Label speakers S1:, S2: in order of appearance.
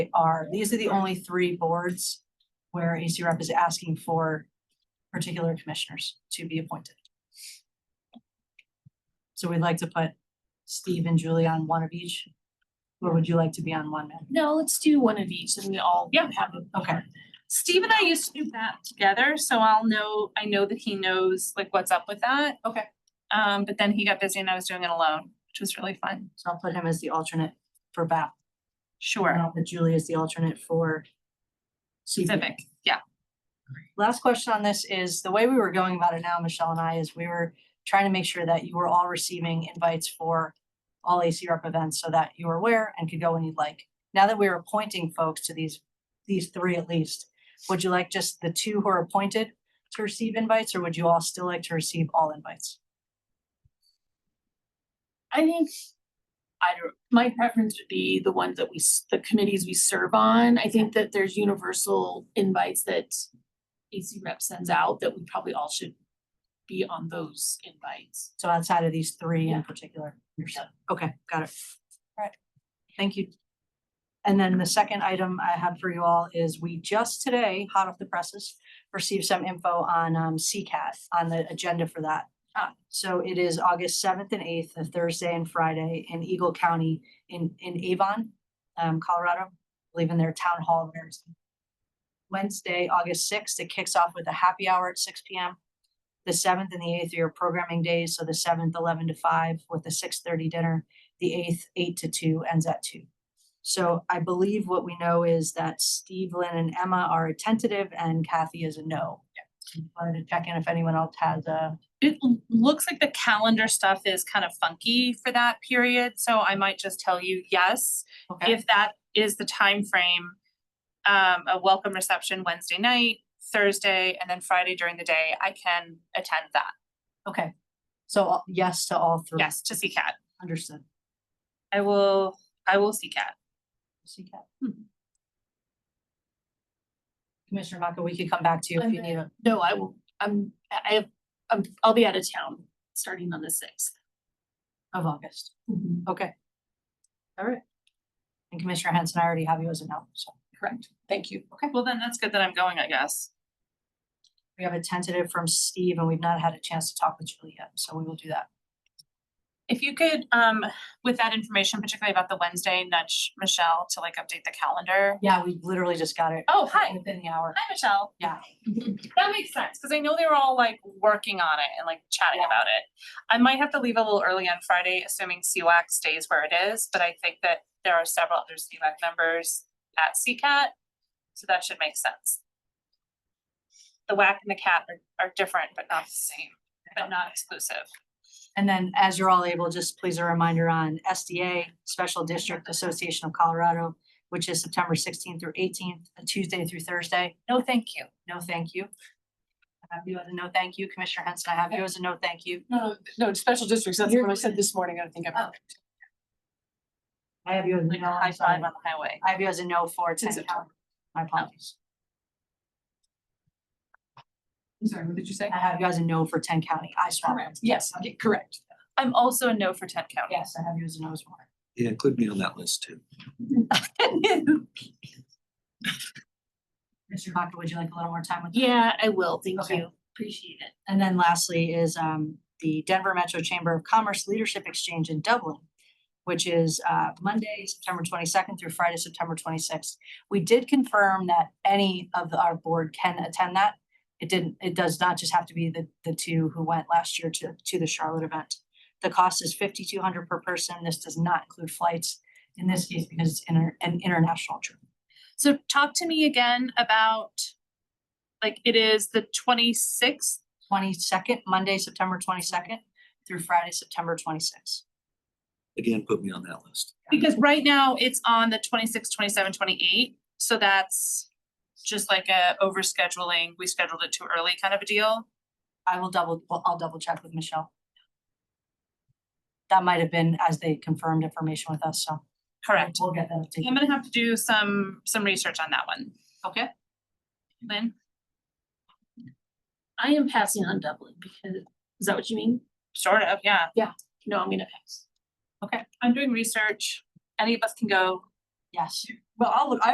S1: are, these are the only three boards where AC rep is asking for particular commissioners to be appointed. So we'd like to put Steve and Julie on one of each. Or would you like to be on one, Matt?
S2: No, let's do one of each and we all
S3: Yeah.
S2: have a.
S1: Okay.
S3: Steve and I used to do that together, so I'll know, I know that he knows like what's up with that.
S2: Okay.
S3: Um, but then he got busy and I was doing it alone, which was really fun.
S1: So I'll put him as the alternate for BAP.
S3: Sure.
S1: And I'll put Julie as the alternate for CP.
S3: Civic, yeah.
S1: Last question on this is, the way we were going about it now, Michelle and I, is we were trying to make sure that you were all receiving invites for all AC rep events so that you were aware and could go when you'd like. Now that we're appointing folks to these, these three at least, would you like just the two who are appointed to receive invites, or would you all still like to receive all invites?
S2: I think, I don't, my preference would be the ones that we, s- the committees we serve on. I think that there's universal invites that AC rep sends out that we probably all should be on those invites.
S1: So outside of these three in
S2: Yeah.
S1: particular. understood. Okay, got it. Alright, thank you. And then the second item I have for you all is we just today, hot off the presses, received some info on um CCAT, on the agenda for that.
S3: Ah.
S1: So it is August seventh and eighth, a Thursday and Friday in Eagle County in in Avon, um, Colorado, I believe in their town hall. there. Wednesday, August sixth, it kicks off with a happy hour at six P M the seventh and the eighth are your programming days, so the seventh, eleven to five with a six thirty dinner. The eighth, eight to two ends at two. So I believe what we know is that Steve, Lynn and Emma are a tentative and Kathy is a no. Wanted to check in if anyone else has a,
S3: It l- looks like the calendar stuff is kind of funky for that period, so I might just tell you yes.
S1: okay,
S3: If that is the time frame, um, a welcome reception Wednesday night, Thursday, and then Friday during the day, I can attend that.
S1: okay. So all- yes to all three.
S3: Yes, to CCAT.
S1: Understood.
S3: I will, I will CCAT.
S1: CCAT. Hmm. Commissioner Vaca, we could come back to you if you
S2: I'm
S1: need a,
S2: No, I will, I'm, I I have, I'm, I'll be out of town starting on the sixth.
S1: of August.
S4: Mm-hmm.
S1: Okay. All right. And Commissioner Henson, I already have you as a no, so.
S2: Correct. Thank you.
S3: Okay, well then that's good that I'm going, I guess.
S1: We have a tentative from Steve and we've not had a chance to talk with Julie yet, so we will do that.
S3: If you could, um, with that information, particularly about the Wednesday, nudge Michelle to like update the calendar.
S1: Yeah, we literally just got it.
S3: Oh, hi.
S1: Within the hour.
S3: Hi, Michelle.
S1: Yeah.
S3: That makes sense, cause I know they were all like working on it and like chatting
S1: Yeah.
S3: about it. I might have to leave a little early on Friday, assuming CWAC stays where it is, but I think that there are several other CWAC members at CCAT. So that should make sense. The WAC and the CAT are, are different, but not the same, but not exclusive.
S1: And then as you're all able, just please a reminder on SDA, Special District Association of Colorado, which is September sixteenth through eighteenth, uh, Tuesday through Thursday.
S3: No, thank you.
S1: No, thank you. I have you as a no, thank you. Commissioner Henson, I have you as a no, thank you.
S4: No, no, no, special districts, that's
S1: You're-
S4: what I said this morning, I think
S1: Oh.
S4: I'm.
S1: I have you as a
S3: Like
S1: no,
S3: a
S1: I'm
S3: high
S1: sorry.
S3: five on the highway.
S1: I have you as a no for ten
S4: Since
S1: town. My apologies.
S4: I'm sorry, what did you say?
S1: I have you as a no for ten county. I swap.
S4: Yes, yeah, correct.
S3: I'm also a no for Tent County.
S1: Yes, I have you as a no as well.
S5: Yeah, include me on that list too.
S1: Mr. Baca, would you like a little more time with? that?
S2: Yeah, I will. Thank
S1: Okay.
S2: you. Appreciate it.
S1: And then lastly is um the Denver Metro Chamber of Commerce Leadership Exchange in Dublin, which is uh Monday, September twenty-second through Friday, September twenty-sixth. We did confirm that any of the- our board can attend that. It didn't, it does not just have to be the the two who went last year to to the Charlotte event. The cost is fifty-two hundred per person. This does not include flights in this case because it's inter- an international trip.
S3: So talk to me again about, like, it is the twenty-sixth,
S1: Twenty-second, Monday, September twenty-second through Friday, September twenty-sixth.
S5: Again, put me on that list.
S3: because right now it's on the 26th, 27th, 28th. So that's just like a overscheduling, we scheduled it too early kind of a deal.
S1: I will double, well, I'll double check with Michelle. That might have been as they confirmed information with us, so.
S3: Correct.
S1: We'll get that.
S3: I'm
S1: updated.
S3: gonna have to do some, some research on that one.
S1: Okay.
S3: Lynn?
S2: I am passing on Dublin because, is that what you mean?
S3: Sort of, yeah.
S2: No, I'm gonna pass.
S3: I'm doing research. Any of us can go.
S1: Yes. Well, I'll look, I